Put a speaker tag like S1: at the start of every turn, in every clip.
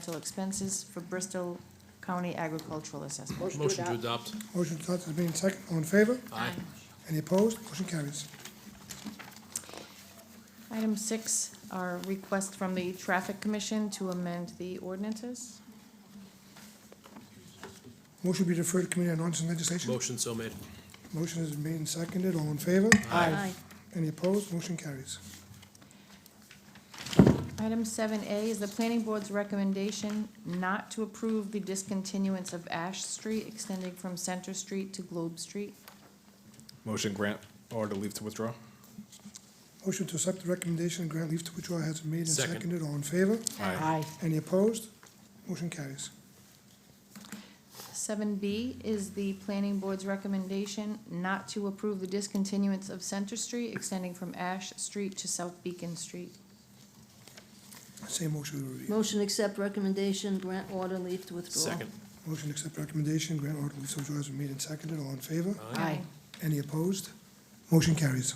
S1: environmental expenses for Bristol County agricultural assessment.
S2: Motion to adopt.
S3: Motion to adopt has been second. All in favor?
S2: Aye.
S3: Any opposed? Motion carries.
S1: Item six, our request from the Traffic Commission to amend the ordinances.
S3: Motion be referred to Committee on Ordinance and Legislation.
S2: Motion so made.
S3: Motion has been seconded. All in favor?
S1: Aye.
S3: Any opposed? Motion carries.
S1: Item seven A is the Planning Board's recommendation not to approve the discontinuance of Ash Street extending from Center Street to Globe Street.
S4: Motion grant or to leave to withdraw?
S3: Motion to accept the recommendation and grant leave to withdraw has been made and
S2: Second.
S3: seconded. All in favor?
S4: Aye.
S3: Any opposed? Motion carries.
S1: Seven B is the Planning Board's recommendation not to approve the discontinuance of Center Street extending from Ash Street to South Beacon Street.
S3: Same motion will be.
S5: Motion accept recommendation, grant order, leave to withdraw.
S2: Second.
S3: Motion to accept recommendation, grant order leave to withdraw has been made and seconded. All in favor?
S1: Aye.
S3: Any opposed? Motion carries.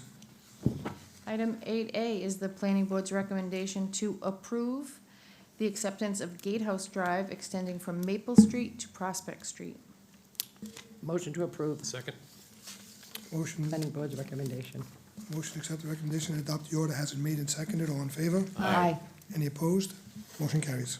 S1: Item eight A is the planning board's recommendation to approve the acceptance of Gatehouse Drive extending from Maple Street to Prospect Street.
S6: Motion to approve,
S2: Second.
S3: Motion,
S6: planning board's recommendation.
S3: motion to accept the recommendation and adopt the order has been made and seconded. All in favor?
S6: Aye.
S3: Any opposed? Motion carries.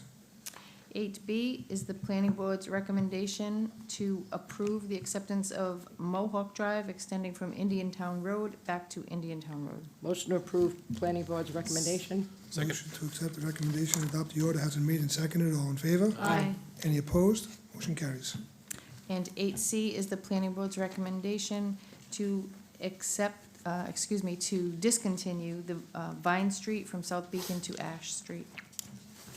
S1: Eight B is the planning board's recommendation to approve the acceptance of Mohawk Drive extending from Indian Town Road back to Indian Town Road.
S6: Motion to approve, planning board's recommendation.
S2: Second.
S3: Motion to accept the recommendation and adopt the order has been made and seconded. All in favor? Any opposed? Motion carries.
S1: And eight C is the planning board's recommendation to accept, uh, excuse me, to discontinue the uh, Vine Street from South Beacon to Ash Street.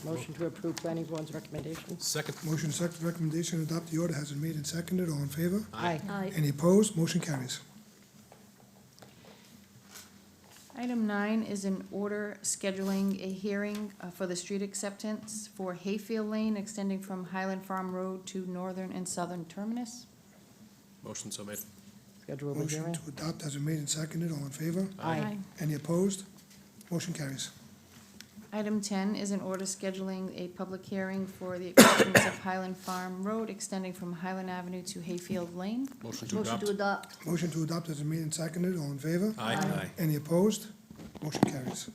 S6: Motion to approve, planning board's recommendation.
S2: Second.
S3: Motion to accept the recommendation and adopt the order has been made and seconded. All in favor?
S6: Aye.
S5: Aye.
S3: Any opposed? Motion carries.
S1: Item nine is an order scheduling a hearing uh, for the street acceptance for Hayfield Lane extending from Highland Farm Road to northern and southern terminus.
S2: Motion so made.
S6: Schedule a
S3: Motion
S6: hearing.
S3: to adopt has been made and seconded. All in favor?
S6: Aye.
S3: Any opposed? Motion carries.
S1: Item ten is an order scheduling a public hearing for the acceptance of Highland Farm Road extending from Highland Avenue to Hayfield Lane.
S2: Motion to
S5: Motion
S2: adopt.
S5: to adopt.
S3: Motion to adopt has been made and seconded. All in favor?
S2: Aye.
S3: Any opposed? Motion carries.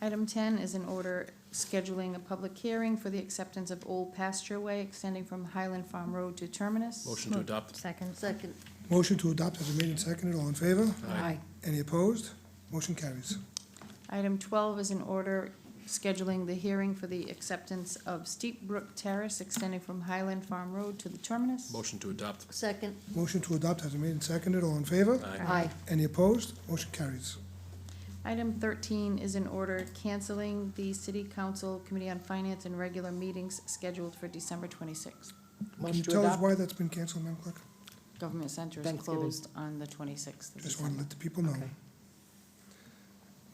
S1: Item ten is an order scheduling a public hearing for the acceptance of Old Pasture Way extending from Highland Farm Road to terminus.
S2: Motion to adopt.
S1: Second.
S5: Second.
S3: Motion to adopt has been made and seconded. All in favor?
S2: Aye.
S3: Any opposed? Motion carries.
S1: Item twelve is an order scheduling the hearing for the acceptance of Steep Brook Terrace extending from Highland Farm Road to the terminus.
S2: Motion to adopt.
S5: Second.
S3: Motion to adopt has been made and seconded. All in favor?
S2: Aye.
S6: Aye.
S3: Any opposed? Motion carries.
S1: Item thirteen is an order canceling the City Council Committee on Finance and regular meetings scheduled for December twenty-sixth.
S3: Can you
S6: Motion to
S3: tell us
S6: adopt.
S3: why that's been canceled, Madam Clerk?
S1: Government Center is
S6: Thanksgiving.
S1: closed on the twenty-sixth of
S3: Just want
S1: December.
S3: to let the people know.
S6: Okay.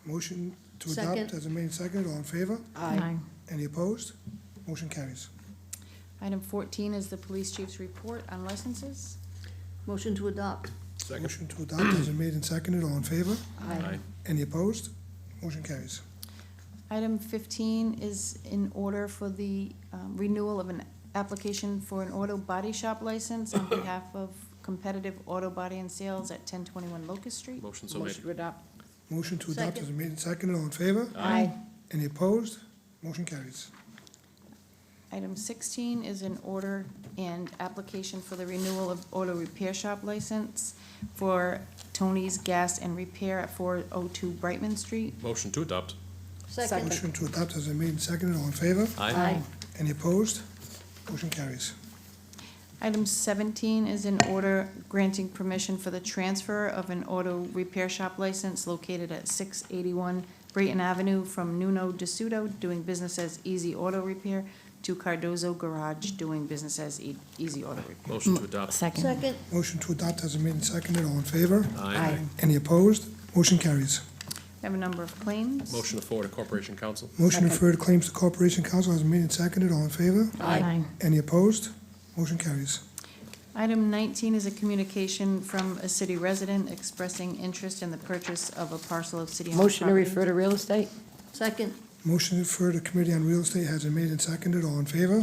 S3: Motion to
S5: Second.
S3: adopt has been made and seconded. All in favor?
S6: Aye.
S3: Any opposed? Motion carries.
S1: Item fourteen is the police chief's report on licenses.
S5: Motion to adopt.
S2: Second.
S3: Motion to adopt has been made and seconded. All in favor?
S2: Aye.
S3: Any opposed? Motion carries.
S1: Item fifteen is in order for the um, renewal of an application for an auto body shop license on behalf of Competitive Auto Body and Sales at ten twenty-one Locust Street.
S2: Motion so made.
S6: Motion to adopt.
S3: Motion to adopt has
S5: Second.
S3: been made and seconded. All in favor?
S6: Aye.
S3: Any opposed? Motion carries.
S1: Item sixteen is in order and application for the renewal of auto repair shop license for Tony's Gas and Repair at four oh two Brightman Street.
S2: Motion to adopt.
S5: Second.
S3: Motion to adopt has been made and seconded. All in favor?
S2: Aye.
S3: Any opposed? Motion carries.
S1: Item seventeen is in order granting permission for the transfer of an auto repair shop license located at six eighty-one Brayton Avenue from Nuno DeSudo, doing business as Easy Auto Repair, to Cardozo Garage, doing business as E- Easy Auto Repair.
S2: Motion to adopt.
S5: Second.
S3: Motion to adopt has been made and seconded. All in favor?
S2: Aye.
S3: Any opposed? Motion carries.
S1: We have a number of claims.
S2: Motion to forward to Corporation Council.
S3: Motion to
S6: Second.
S3: refer to claims to Corporation Council has been made and seconded. All in favor?
S6: Aye.
S3: Any opposed? Motion carries.
S1: Item nineteen is a communication from a city resident expressing interest in the purchase of a parcel of city-owned property.
S6: Motion to refer to real estate.
S5: Second.
S3: Motion to refer to Committee on Real Estate has been made and seconded. All in favor?